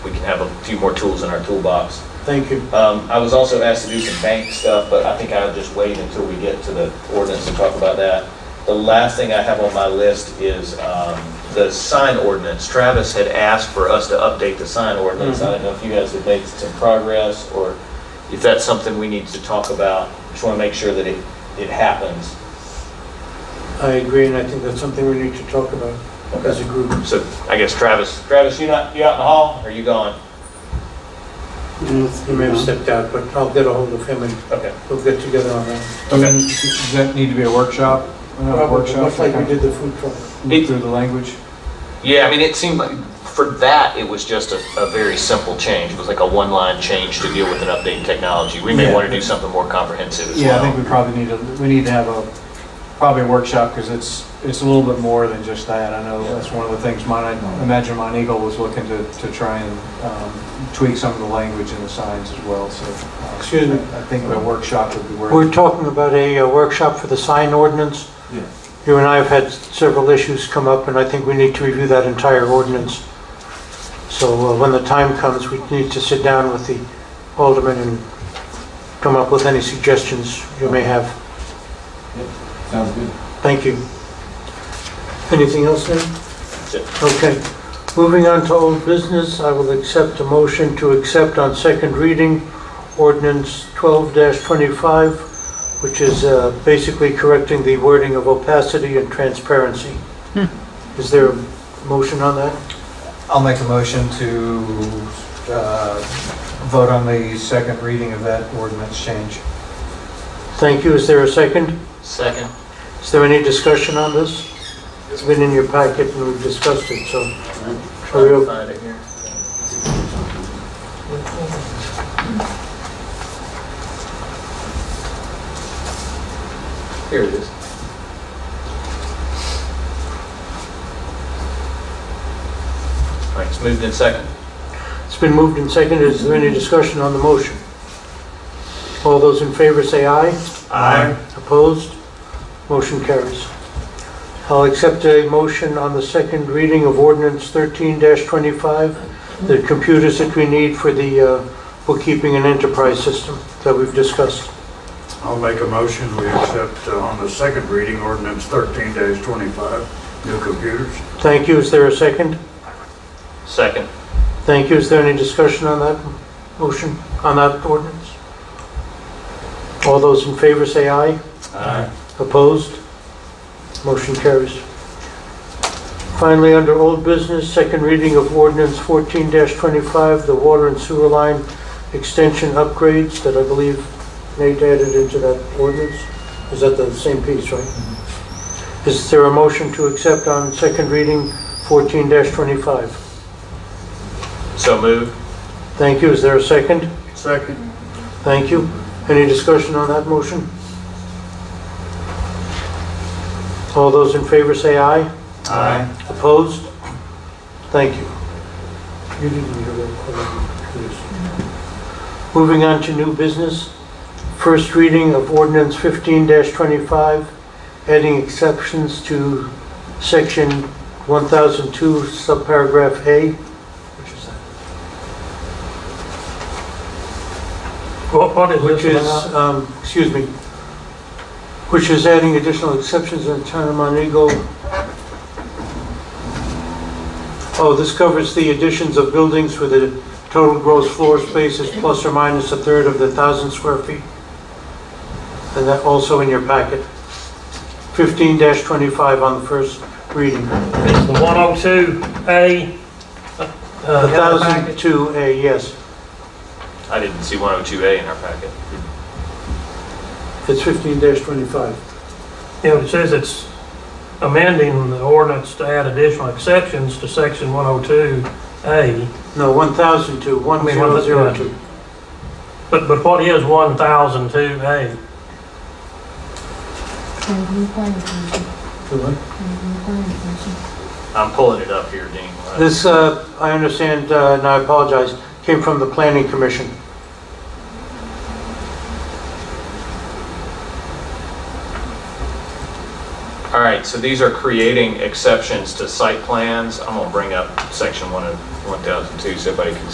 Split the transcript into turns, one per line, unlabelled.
have a few more tools in our toolbox.
Thank you.
Um, I was also asked to do some bank stuff, but I think I'll just wait until we get to the ordinance and talk about that. The last thing I have on my list is um, the sign ordinance. Travis had asked for us to update the sign ordinance. I don't know if you guys have made some progress, or if that's something we need to talk about. Just want to make sure that it, it happens.
I agree, and I think that's something we need to talk about as a group.
So I guess Travis, Travis, you not, you out in the hall, or you gone?
He may have stepped out, but I'll get a hold of him and
Okay.
we'll get together on that.
And then Does that need to be a workshop? Another
Probably,
workshop?
Much like we
kind
did the food truck.
of Look through the language?
Yeah, I mean, it seemed like, for that, it was just a, a very simple change. It was like a one-line change to deal with an updating technology. We may
Yeah.
want to do something more comprehensive as
Yeah, I think
well.
we probably need to, we need to have a, probably a workshop, because it's, it's a little bit more than just that. I know that's one of the things mine, I imagine Mont Eagle was looking to, to try and um, tweak some of the language in the signs as well, so. uh,
Excuse me.
I think a workshop would be where.
We're talking about a uh, workshop for the sign ordinance.
Yeah.
You and I have had several issues come up, and I think we need to review that entire ordinance. So uh, when the time comes, we need to sit down with the alderman and come up with any suggestions you may have.
Sounds good.
Thank you. Anything else, then?
it.
Okay. Moving on to old business, I will accept a motion to accept on second reading ordinance 12-25, which is uh, basically correcting the wording of opacity and transparency. Is there a motion on that?
I'll make a motion to uh, vote on the second reading of that ordinance change.
Thank you. Is there a second?
Second.
Is there any discussion on this? It's been in your packet and we've discussed it, so. Shall we op-
Find it here. Here it is. All right, it's moved in second.
It's been moved and seconded. Is there any discussion on the motion? All those in favor say aye.
Aye.
Opposed? Motion carries. I'll accept a motion on the second reading of ordinance 13-25, the computers that we need for the uh, bookkeeping and enterprise system that we've discussed.
I'll make a motion, we accept uh, on the second reading ordinance thirteen twenty-five, new computers.
Thank you. Is there a second?
Second.
Thank you. Is there any discussion on that motion, on that ordinance? All those in favor say aye. Opposed? Motion carries. Finally, under old business, second reading of ordinance 14-25, the water and sewer line extension upgrades that I believe Nate added into that ordinance. Is that the same piece, right? Is there a motion to accept on second reading 14-25?
So moved.
Thank you. Is there a second?
Second.
Thank you. Any discussion on that motion? All those in favor say aye.
Aye.
Opposed? Thank you. You didn't need a roll call on this. Moving on to new business. First reading of ordinance 15-25, adding exceptions to section 1002, subparagraph A. Which is that?
What is
Which is,
this?
um, excuse me, which is adding additional exceptions in the town of Montego. Oh, this covers the additions of buildings where the total gross floor space is plus or minus a third of the thousand square feet. And that also in your packet. Fifteen twenty-five on the first reading.
It's the 102A. uh,
A thousand two A, yes.
I didn't see 102A in our packet.
It's fifteen twenty-five.
Yeah, it says it's amending the ordinance to add additional exceptions to section 102A.
No, one thousand two, one
mean,
zero
one-
zero two.
But, but what is 1002A?
Review planning commission,
Do what?
review planning commission.
I'm pulling it up here, Dean.
This, uh, I understand, uh, and I apologize, came from the Planning Commission.
All right, so these are creating exceptions to site plans. I'm gonna bring up section 1 of 1002 so everybody can